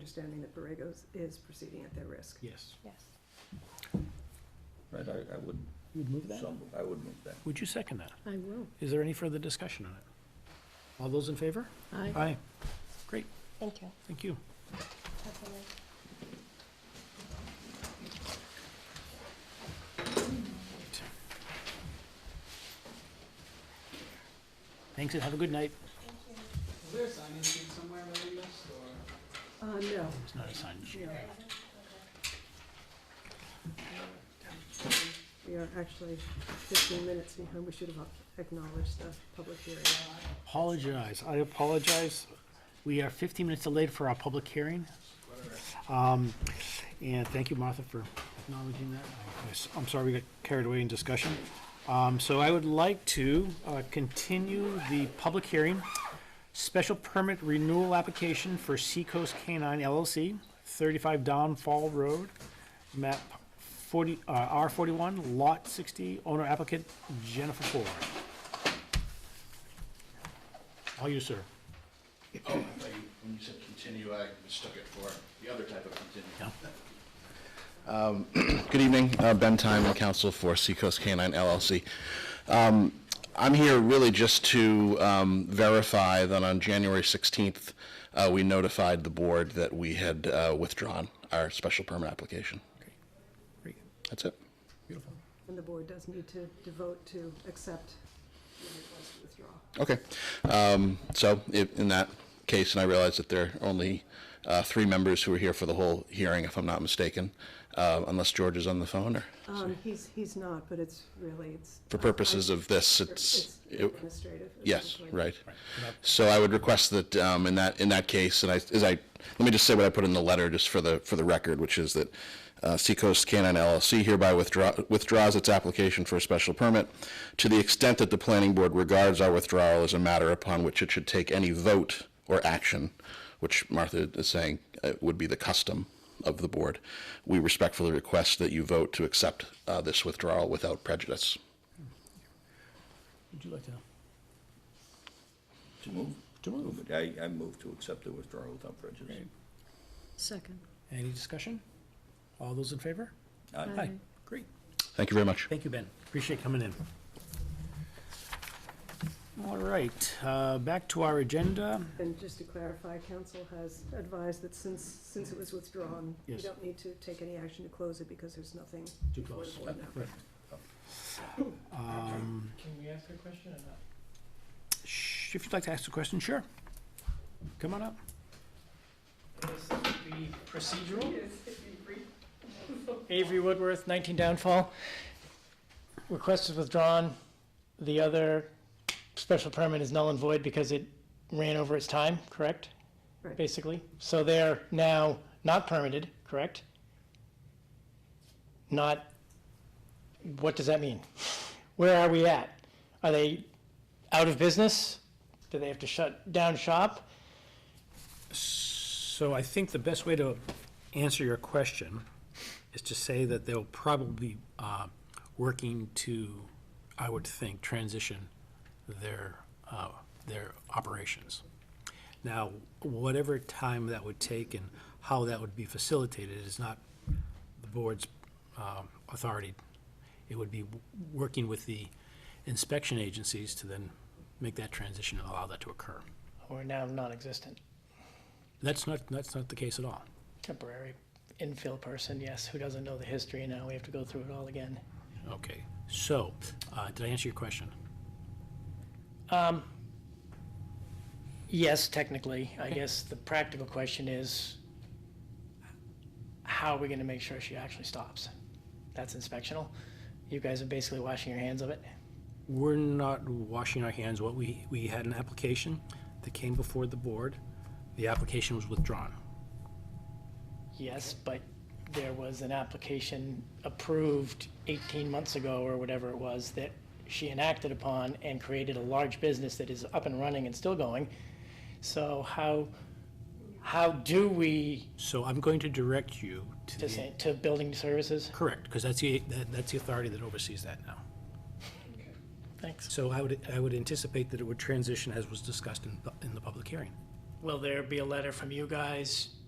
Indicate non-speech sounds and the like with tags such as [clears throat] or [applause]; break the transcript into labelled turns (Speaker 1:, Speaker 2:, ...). Speaker 1: understanding that Borrego's is proceeding at their risk.
Speaker 2: Yes.
Speaker 3: Yes.
Speaker 4: Right, I, I would,
Speaker 2: You'd move that?
Speaker 4: some, I would move that.
Speaker 2: Would you second that?
Speaker 5: I will.
Speaker 2: Is there any further discussion on it? All those in favor?
Speaker 5: I
Speaker 2: Aye. Great,
Speaker 3: Thank you.
Speaker 2: thank you.
Speaker 3: Have a nice-
Speaker 2: Thanks and have a good night.
Speaker 6: Is there a sign-in sheet somewhere that we missed, or?
Speaker 1: Uh, no,
Speaker 2: It's not a sign.
Speaker 1: we are actually fifteen minutes behind. We should have acknowledged the public hearing.
Speaker 2: Apologize, I apologize. We are fifteen minutes delayed for our public hearing. Um, and thank you, Martha, for acknowledging that. I was- I'm sorry we got carried away in discussion. Um, so I would like to, uh, continue the public hearing. Special permit renewal application for Seacoast Canine LLC, thirty-five Don Fall Road, map forty, uh, R forty-one, lot sixty, owner applicant Jennifer Ford. All you, sir.
Speaker 7: Oh, I thought you, when you said continue, I mistook it for the other type of continue. Um, [clears throat] Good evening, uh, Ben Time, counsel for Seacoast Canine LLC. Um, I'm here really just to um, verify that on January 16th, uh, we notified the board that we had uh, withdrawn our special permit application.
Speaker 2: Great.
Speaker 7: That's it.
Speaker 1: And the board does need to devote to accept the request to withdraw.
Speaker 7: Okay. Um, So i- in that case, and I realize that there are only uh, three members who are here for the whole hearing, if I'm not mistaken, uh, unless George is on the phone or,
Speaker 1: Um, he's, he's not, but it's really, it's.
Speaker 7: for purposes of this,
Speaker 1: It's
Speaker 7: it's, it-
Speaker 1: administrative.
Speaker 7: yes,
Speaker 1: essentially.
Speaker 7: right. So I would request that um, in that, in that case, and I, as I, let me just say what I put in the letter just for the, for the record, which is that uh, Seacoast Canine LLC hereby withdraw, withdraws its application for a special permit to the extent that the planning board regards our withdrawal as a matter upon which it should take any vote or action, which Martha is saying uh, would be the custom of the board. We respectfully request that you vote to accept uh, this withdrawal without prejudice.
Speaker 2: Would you like to?
Speaker 4: To move? To move. I, I move to accept the withdrawal without prejudice.
Speaker 5: Second.
Speaker 2: Any discussion? All those in favor?
Speaker 5: Aye.
Speaker 2: Great.
Speaker 7: Thank you very much.
Speaker 2: Thank you, Ben. Appreciate coming in. All right, uh, back to our agenda.
Speaker 1: And just to clarify, council has advised that since, since it was withdrawn, you
Speaker 2: Yes.
Speaker 1: don't need to take any action to close it because there's nothing.
Speaker 2: Too
Speaker 1: before the
Speaker 2: close.
Speaker 1: board now.
Speaker 2: Right. Um,
Speaker 6: Can we ask a question or not?
Speaker 2: sh- If you'd like to ask a question, sure. Come on up.
Speaker 6: This would be procedural? [laughs] Avery Woodworth, 19 Downfall. Request is withdrawn. The other special permit is null and void because it ran over its time, correct?
Speaker 1: Right.
Speaker 6: Basically. So they're now not permitted, correct? Not, what does that mean? Where are we at? Are they out of business? Do they have to shut down shop?
Speaker 2: So I think the best way to answer your question is to say that they'll probably be uh, working to, I would think, transition their, uh, their operations. Now, whatever time that would take and how that would be facilitated is not the board's um, authority. It would be w- working with the inspection agencies to then make that transition and allow that to occur.
Speaker 6: Or now non-existent?
Speaker 2: That's not, that's not the case at all.
Speaker 6: temporary infill person, yes, who doesn't know the history, and now we have to go through it all again.
Speaker 2: Okay, so, uh, did I answer your question?
Speaker 6: Um, Yes, technically, I guess the practical question is, how are we gonna make sure she actually stops? That's inspectional. You guys are basically washing your hands of it.
Speaker 2: We're not washing our hands. What we, we had an application that came before the board. The application was withdrawn.
Speaker 6: Yes, but there was an application approved eighteen months ago or whatever it was that she enacted upon and created a large business that is up and running and still going. So how, how do we
Speaker 2: So I'm going to direct you to
Speaker 6: To,
Speaker 2: the,
Speaker 6: say, to building services?
Speaker 2: correct, because that's the, that- that's the authority that oversees that now.
Speaker 6: Thanks.
Speaker 2: So I would, I would anticipate that it would transition as was discussed in, the- in the public hearing.
Speaker 6: Will there be a letter from you guys